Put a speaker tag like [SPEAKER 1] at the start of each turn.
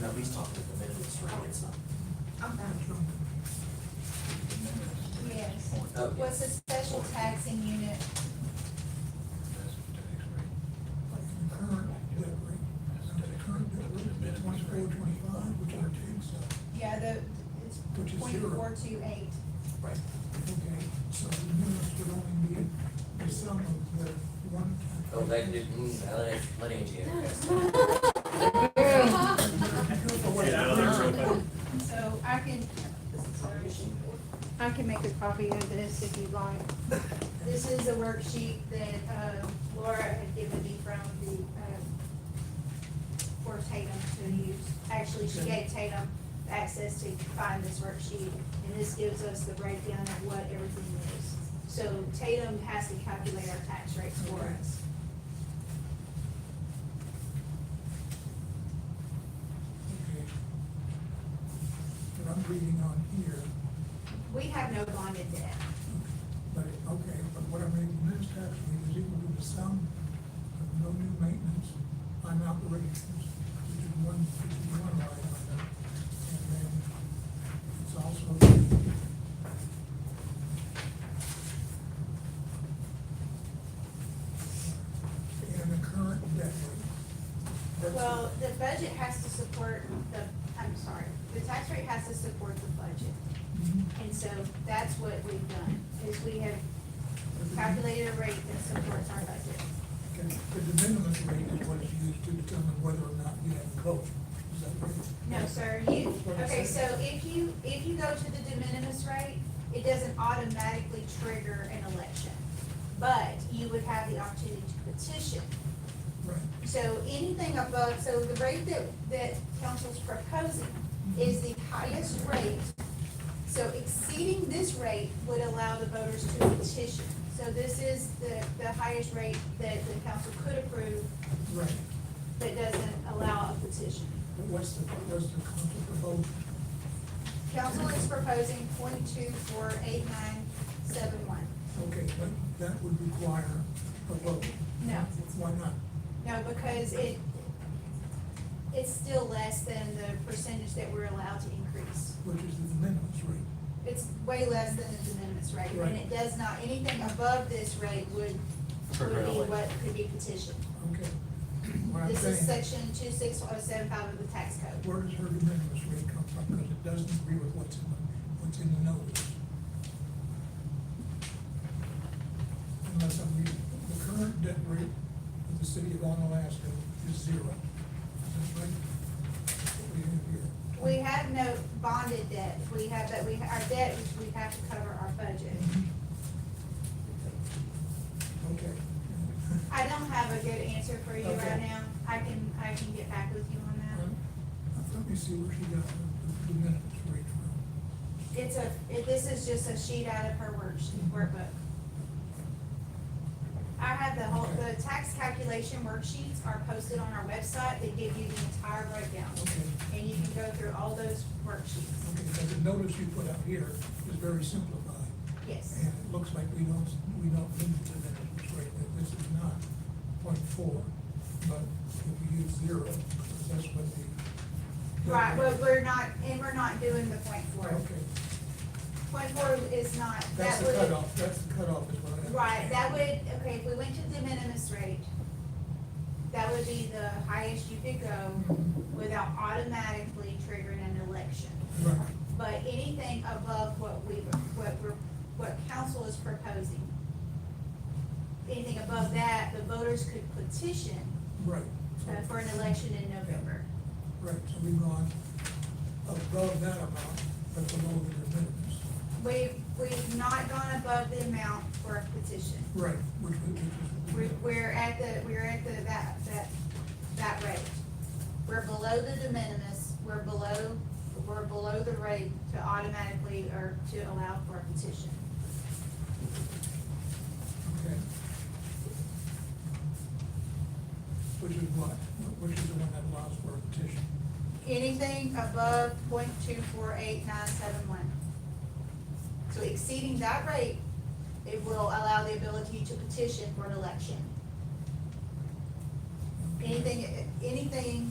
[SPEAKER 1] Nobody's talking to the middle of the street, it's not.
[SPEAKER 2] Yes,
[SPEAKER 1] Oh,
[SPEAKER 2] was the special taxing unit,
[SPEAKER 3] current debt rate, the current debt rate is twenty-four, twenty-five, which I think, so,
[SPEAKER 2] yeah, the, it's
[SPEAKER 3] Which is
[SPEAKER 2] point
[SPEAKER 3] zero.
[SPEAKER 2] four two eight.
[SPEAKER 1] Right.
[SPEAKER 3] okay, so the units would only be the sum of the one.
[SPEAKER 1] Oh, that didn't, uh, let it, let Angie have it.
[SPEAKER 2] So I can, I can make a copy of this if you'd like. This is a worksheet that uh, Laura had given me from the, um, for Tatum to use. Actually, she gave Tatum access to find this worksheet, and this gives us the breakdown of what everything is. So Tatum has to calculate our tax rates for us.
[SPEAKER 3] Okay. But I'm reading on here,
[SPEAKER 2] We have no bonded debt.
[SPEAKER 3] but, it- okay, but what I'm reading in this tax rate is equal to the sum of no new maintenance on operations, which is one, which is one line item. And then it's also in the current debt rate. That's-
[SPEAKER 2] Well, the budget has to support the, I'm sorry, the tax rate has to support the budget.
[SPEAKER 3] Mhm.
[SPEAKER 2] And so that's what we've done, is we have calculated a rate that supports our budget.
[SPEAKER 3] Okay, The de minimis rate is what is used to determine whether or not you have coverage. Is that right?
[SPEAKER 2] No, sir, you, okay, so if you, if you go to the de minimis rate, it doesn't automatically trigger an election. But you would have the opportunity to petition.
[SPEAKER 3] Right.
[SPEAKER 2] So anything above, so the rate that, that council's proposing is the highest rate. So exceeding this rate would allow the voters to petition. So this is the, the highest rate that the council could approve
[SPEAKER 3] Right.
[SPEAKER 2] that doesn't allow a petition.
[SPEAKER 3] But what's the, what's the conflict of vote?
[SPEAKER 2] Council is proposing point two four eight nine seven one.
[SPEAKER 3] Okay, but that would require a vote.
[SPEAKER 2] No.
[SPEAKER 3] Why not?
[SPEAKER 2] No, because it, it's still less than the percentage that we're allowed to increase.
[SPEAKER 3] Which is the de minimis rate.
[SPEAKER 2] It's way less than the de minimis rate,
[SPEAKER 3] Right.
[SPEAKER 2] and it does not, anything above this rate would, would
[SPEAKER 1] Trigger an
[SPEAKER 2] be
[SPEAKER 1] election.
[SPEAKER 2] what could be petitioned.
[SPEAKER 3] Okay. What I'm
[SPEAKER 2] This is
[SPEAKER 3] saying,
[SPEAKER 2] section two six oh seven five of the tax code.
[SPEAKER 3] where does her de minimis rate come from? Because it doesn't agree with what's in the, what's in the notice. Unless I'm reading, the current debt rate of the city of Onalaska is zero. Is that right? That's what we have here.
[SPEAKER 2] We have no bonded debt, we have, that we, our debt, is we have to cover our budget.
[SPEAKER 3] Mm-hmm. Okay.
[SPEAKER 2] I don't have a good answer for you right
[SPEAKER 3] Okay. Mm-hmm.
[SPEAKER 2] now, I can, I can get back with you on that.
[SPEAKER 3] Let me see where she got the, the minutes rate from.
[SPEAKER 2] It's a, it- this is just a sheet out of her worksheet, workbook. I have the whole, the tax calculation worksheets are posted on our website, they give you the entire breakdown.
[SPEAKER 3] Okay.
[SPEAKER 2] And you can go through all those worksheets,
[SPEAKER 3] Okay, so the notice you put out here is very simplified,
[SPEAKER 2] yes.
[SPEAKER 3] and it looks like we don't, we don't need the minutes rate, that this is not point four, but if you use zero, that's what the.
[SPEAKER 2] Right, but we're not, and we're not doing the point four.
[SPEAKER 3] Okay,
[SPEAKER 2] Point four is not,
[SPEAKER 3] that's
[SPEAKER 2] that
[SPEAKER 3] the
[SPEAKER 2] would.
[SPEAKER 3] cutoff, that's the cutoff is what I understand.
[SPEAKER 2] Right, that would, okay, if we went to the minimis rate, that would be the highest you could go without automatically triggering an election.
[SPEAKER 3] Right.
[SPEAKER 2] But anything above what we, what we're, what council is proposing, anything above that, the voters could petition
[SPEAKER 3] Right. so-
[SPEAKER 2] uh, for an election in November.
[SPEAKER 3] Right, so we've gone above that amount, but below the de minimis.
[SPEAKER 2] We, we've not gone above the amount for a petition.
[SPEAKER 3] Right, which, would- which is.
[SPEAKER 2] We're, we're at the, we're at the, that, that, that rate. We're below the de minimis, we're below, we're below the rate to automatically, or to allow for a petition.
[SPEAKER 3] Okay. Which is what? Which is the one that allows for a petition?
[SPEAKER 2] Anything above point two four eight nine seven one. So exceeding that rate, it will allow the ability to petition for an election. Anything, anything